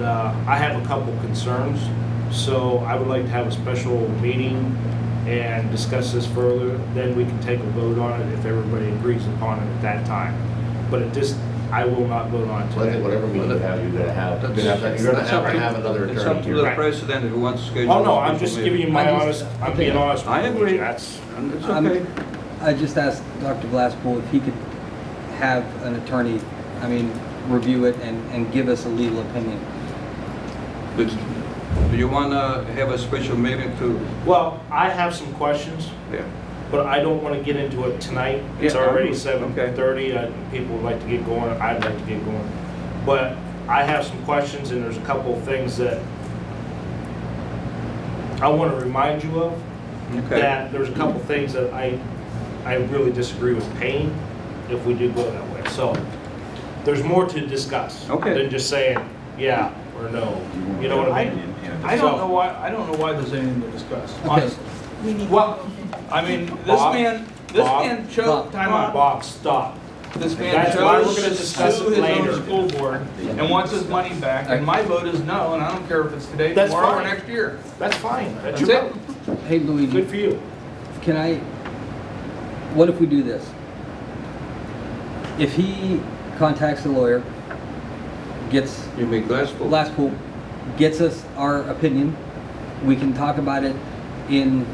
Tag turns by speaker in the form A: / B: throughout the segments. A: Uh, I have a couple concerns, so I would like to have a special meeting and discuss this further. Then we can take a vote on it if everybody agrees upon it at that time. But at this, I will not vote on it
B: So I think
A: today.
B: whatever meeting you have, you're gonna have, you're gonna have,
C: That's-
B: you're gonna
C: that's
B: have
C: up
B: to
C: to-
B: have another
C: It's up
B: attorney
C: to
B: here.
C: the
A: Right.
C: president who wants to schedule.
A: Oh, no,
C: a
A: I'm
C: special
A: just
C: meeting.
A: giving you my
D: I
A: honest,
D: just-
A: I'm being honest.
C: I
A: with you.
C: agree.
A: That's,
C: And It's
D: I'm-
C: okay.
D: I just asked Dr. Glasspool if he could have an attorney, I mean, review it and, and give us a legal opinion.
C: But Do you want to have a special meeting to,
A: well, I have some questions,
C: yeah,
A: but I don't want to get into it tonight. It's
C: Yeah, I
A: already
C: agree.
A: seven thirty, uh, people would like to get going, I'd like to get going. But I have some questions, and there's a couple of things that I want to remind you of,
C: okay.
A: that there's a couple of things that I, I really disagree with paying if we do go that way. So there's more to discuss.
C: Okay.
A: Than just saying, yeah or no, you know what I mean?
E: I don't know why, I don't know why there's anything to discuss, honestly. Well, I mean, this
A: Bob?
E: man, this
A: Bob?
E: man
D: Bob?
E: chose, time
A: Come on,
E: out,
A: Bob, stop.
E: this man
A: That's why we're
E: chose
A: gonna
E: to
A: discuss
E: sue
A: it
E: his
A: later.
E: own school board and wants his money back, and my vote is no, and I don't care if it's today,
A: That's
E: tomorrow, or
A: fine.
E: next year.
A: That's fine. That's
E: That's
A: your,
E: it.
D: Hey Luigi,
A: good for you.
D: can I, what if we do this? If he contacts the lawyer, gets
C: You make Glasspool.
D: Glasspool, gets us our opinion, we can talk about it in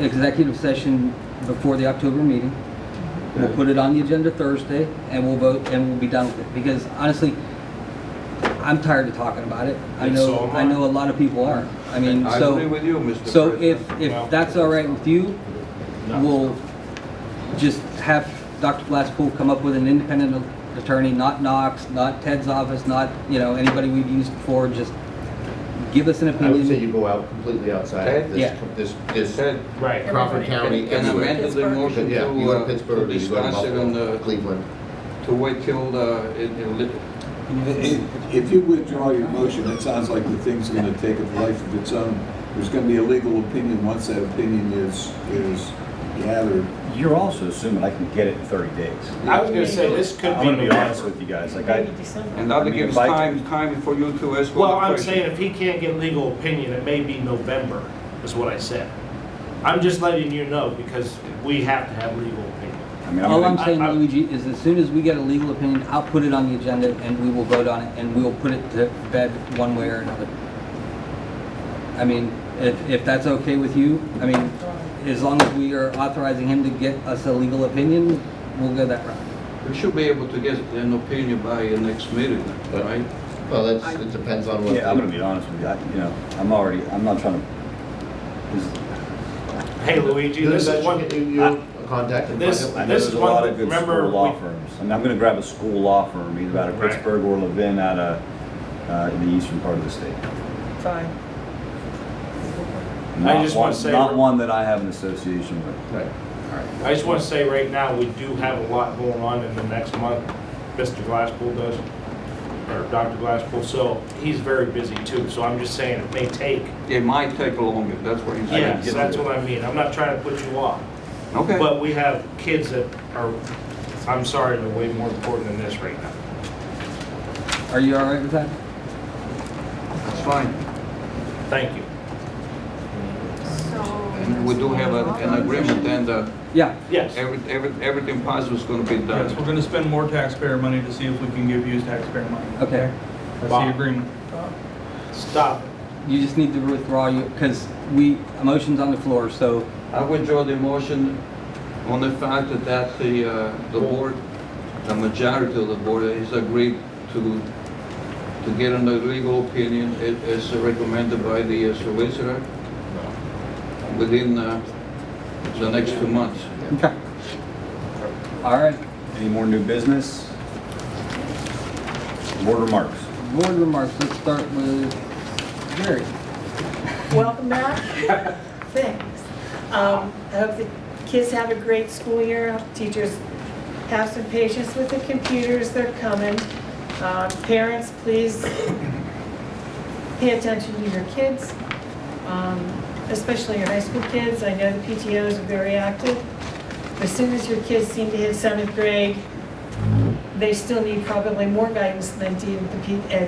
D: executive session before the October meeting. We'll put it on the agenda Thursday, and we'll vote, and we'll be done with it, because honestly, I'm tired of talking about it. I
A: And so
D: know,
A: am
D: I know a lot of people are. I mean,
C: I agree
D: so,
C: with you, Mr. President.
D: so if, if
A: Well-
D: that's all right with you,
A: No.
D: we'll just have Dr. Glasspool come up with an independent attorney, not Knox, not Ted's office, not, you know, anybody we've used before, just give us an
B: I would say
D: opinion.
B: you go out completely outside
C: Okay.
B: of
D: Yeah.
B: this, this, this
C: Said,
A: Right.
B: Crawford County,
C: can I
B: everywhere.
C: amend the motion
B: Yeah, you
C: to,
B: go
C: uh,
B: to
C: to
B: Pittsburgh, you go to
C: discuss it and,
B: Buffalo,
C: uh,
B: Cleveland.
C: to wait till, uh, it, it,
F: If if you withdraw your motion, it sounds like the thing's going to take a life of its own. There's going to be a legal opinion once that opinion is, is gathered.
G: You're also assuming I can get it in 30 days.
A: I was gonna say, this could
G: I'm gonna
A: be
G: be honest
A: November.
G: with you guys, like I,
H: Maybe December.
C: and that
G: I mean,
C: gives
G: if I-
C: time, time for you to ask
A: Well,
C: all the
A: I'm
C: questions.
A: saying if he can't get legal opinion, it may be November, is what I said. I'm just letting you know because we have to have legal opinion.
G: I mean, I'm
D: All I'm
G: gonna,
D: saying,
A: I- I-
D: Luigi, is as soon as we get a legal opinion, I'll put it on the agenda and we will vote on it and we'll put it to bed one way or another. I mean, if, if that's okay with you, I mean, as long as we are authorizing him to get us a legal opinion, we'll go that route.
C: We should be able to get an opinion by the next meeting, right?
B: Well, that's, it depends on what.
G: yeah, I'm
B: the-
G: gonna be honest with you, I, you know, I'm already, I'm not trying to, this-
A: Hey Luigi,
B: Do the
A: this
B: best
A: is
B: you
A: one,
B: can do, you contact and find
A: this-
B: out.
G: I know
A: this
G: there's
A: is
G: a
A: one-
G: lot of good
A: remember
G: school law
A: we-
G: firms. And I'm gonna grab a school law firm, either out of
A: Right.
G: Pittsburgh or Levin out of, uh, in the eastern part of the state.
H: Fine.
G: Not
A: just wanna
G: one-
A: say-
G: Not one that I have an association with.
B: Right.
A: I just want to say right now, we do have a lot going on in the next month. Mr. Glasspool does, or Dr. Glasspool, so he's very busy too. So I'm just saying it may take.
C: It might take longer, that's what he's saying.
A: Yes, that's what I mean. I'm not trying to put you off.
C: Okay.
A: But we have kids that are, I'm sorry, they're way more important than this right now.
D: Are you all right with that?
C: That's fine.
A: Thank you.
C: And we do have a- an agreement and uh,
D: Yeah,
A: Yes.
C: every- every- everything possible is going to be
E: Yes,
C: done.
E: we're gonna spend more taxpayer money to see if we can give you taxpayer money.
D: Okay.
E: That's the
A: Bob.
E: agreement.
A: Stop.
D: you just need to withdraw you, because we, a motion's on the floor, so
C: I withdraw the motion on the fact that that the, uh, the board, the majority of the board has agreed to, to get an legal opinion a- as recommended by the uh, solicitor within uh, the next two months.
D: Okay. All right,
G: Any more new business? Board remarks?
D: board remarks, let's start with Jerry.
H: Welcome back. Thanks. Um, I hope the kids have a great school year. I hope Teachers have some patience with the computers, they're coming. Um, Parents, please pay attention to your kids, um, especially your high school kids. I know the PTOs are very active. As soon as your kids seem to hit seventh grade, they still need probably more guidance than DMP, and